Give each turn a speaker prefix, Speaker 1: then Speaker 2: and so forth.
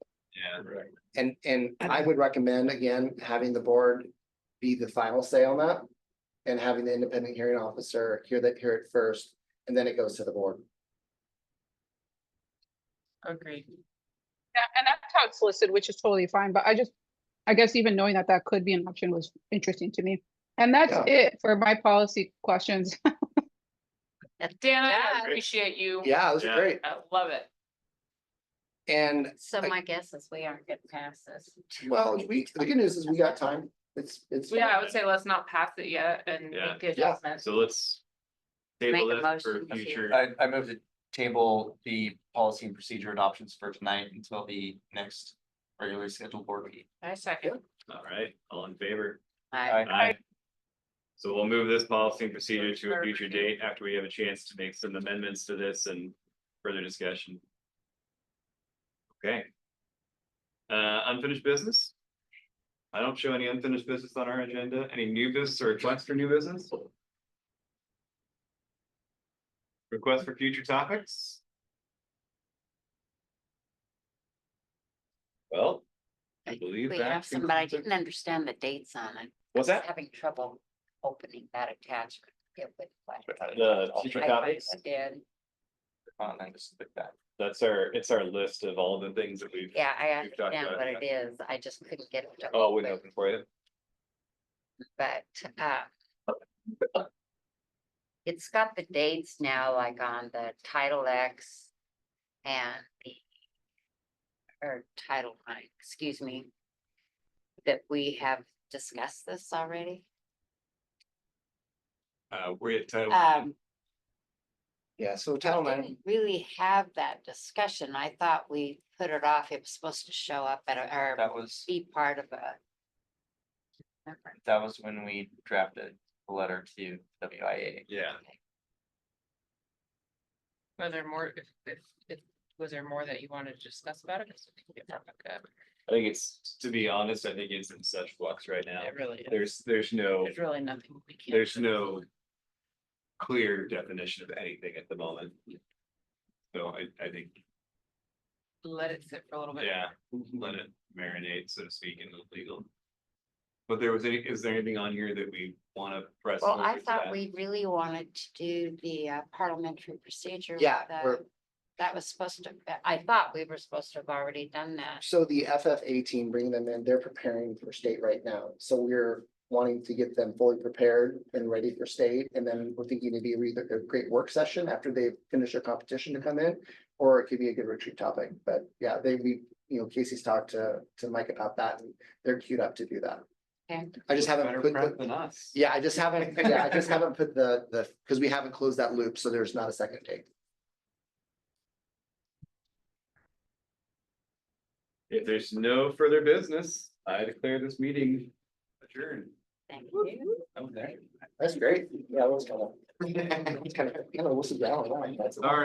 Speaker 1: Right.
Speaker 2: And, and I would recommend, again, having the board be the final say on that. And having the independent hearing officer hear that, hear it first, and then it goes to the board.
Speaker 3: Agreed.
Speaker 4: Yeah, and that's how it's listed, which is totally fine, but I just, I guess even knowing that that could be an option was interesting to me. And that's
Speaker 2: Yeah.
Speaker 4: it for my policy questions.
Speaker 3: Dana, I
Speaker 5: Yeah.
Speaker 3: appreciate you.
Speaker 2: Yeah, that's
Speaker 1: Yeah.
Speaker 2: great.
Speaker 3: I love it.
Speaker 2: And,
Speaker 5: So my guess is we aren't getting past this.
Speaker 2: well, we, the good news is we got time. It's, it's.
Speaker 3: Yeah, I would say let's not pass it yet and
Speaker 1: Yeah.
Speaker 3: make the
Speaker 2: Yeah.
Speaker 3: adjustments.
Speaker 1: So let's table
Speaker 5: Make a
Speaker 1: this for
Speaker 5: motion to-
Speaker 1: future.
Speaker 6: I, I move to table the policy and procedure adoptions for tonight until the next regularly scheduled board meeting.
Speaker 3: I second.
Speaker 1: All right, all in favor?
Speaker 5: I,
Speaker 1: Aye. So we'll move this policy and procedure to a future date after we have a chance to make some amendments to this and further discussion. Okay. Uh, unfinished business? I don't show any unfinished business on our agenda. Any new business or requests for new business? Requests for future topics? Well, I believe
Speaker 5: we
Speaker 1: that.
Speaker 5: have some, but I
Speaker 1: concludes it.
Speaker 5: didn't understand the dates on it.
Speaker 1: What's
Speaker 5: I was
Speaker 1: that?
Speaker 5: Having trouble opening that attachment. It would flash.
Speaker 1: The future
Speaker 5: I
Speaker 1: topics?
Speaker 5: finally Did,
Speaker 6: Uh, And I just click that.
Speaker 1: That's our, it's our list of all the things that we've.
Speaker 5: yeah, I
Speaker 1: We've talked
Speaker 5: understand
Speaker 1: about
Speaker 5: what
Speaker 1: it,
Speaker 5: it is. I just couldn't get it. to
Speaker 1: Oh, we're
Speaker 5: open,
Speaker 1: looking for you.
Speaker 5: But, uh. It's got the dates now, like on the Title X and the. Or Title Nine, excuse me. That we have discussed this already.
Speaker 1: Uh, we're at title.
Speaker 5: Um,
Speaker 2: Yeah, so Title
Speaker 5: we
Speaker 2: IX,
Speaker 5: didn't really have that discussion. I thought we put it off. It was supposed to show up at a, or
Speaker 6: That was,
Speaker 5: be part of a.
Speaker 6: that was when we drafted the letter to WIA.
Speaker 1: Yeah,
Speaker 3: Were there more, if, if, if, was there more that you wanted to discuss about it? 'Cause we can get
Speaker 5: No.
Speaker 3: back up.
Speaker 1: I think it's, to be honest, I think it's in such flux right now.
Speaker 3: It really is.
Speaker 1: There's, there's no,
Speaker 3: There's really nothing we can.
Speaker 1: there's no clear definition of anything at the moment. So I, I think,
Speaker 3: Let it sit for a little bit.
Speaker 1: yeah, let it marinate, so to speak, in the legal. But there was any, is there anything on here that we want to press?
Speaker 5: Well, I
Speaker 1: forward to
Speaker 5: thought
Speaker 1: that?
Speaker 5: we really wanted to do the uh, parliamentary procedure. with
Speaker 2: Yeah,
Speaker 5: the-
Speaker 2: we're-
Speaker 5: That was supposed to, I thought we were supposed to have already done that.
Speaker 2: so the FFA team, bringing them in, they're preparing for state right now. So we're wanting to get them fully prepared and ready for state. And then we're thinking it'd be either a great work session after they finish their competition to come in. Or it could be a good retreat topic, but yeah, they, we, you know, Casey's talked to, to Mike about that and they're queued up to do that.
Speaker 5: And
Speaker 2: I just haven't.
Speaker 1: Better
Speaker 2: put the-
Speaker 1: prep than us.
Speaker 2: Yeah, I just haven't, yeah, I just haven't put the, the, because we haven't closed that loop, so there's not a second date.
Speaker 1: If there's no further business, I declare this meeting adjourned.
Speaker 5: thank you.
Speaker 1: Oh, there.
Speaker 2: That's great. Yeah, that was kind of. Kind of, you know, what's the balance?
Speaker 1: Sorry.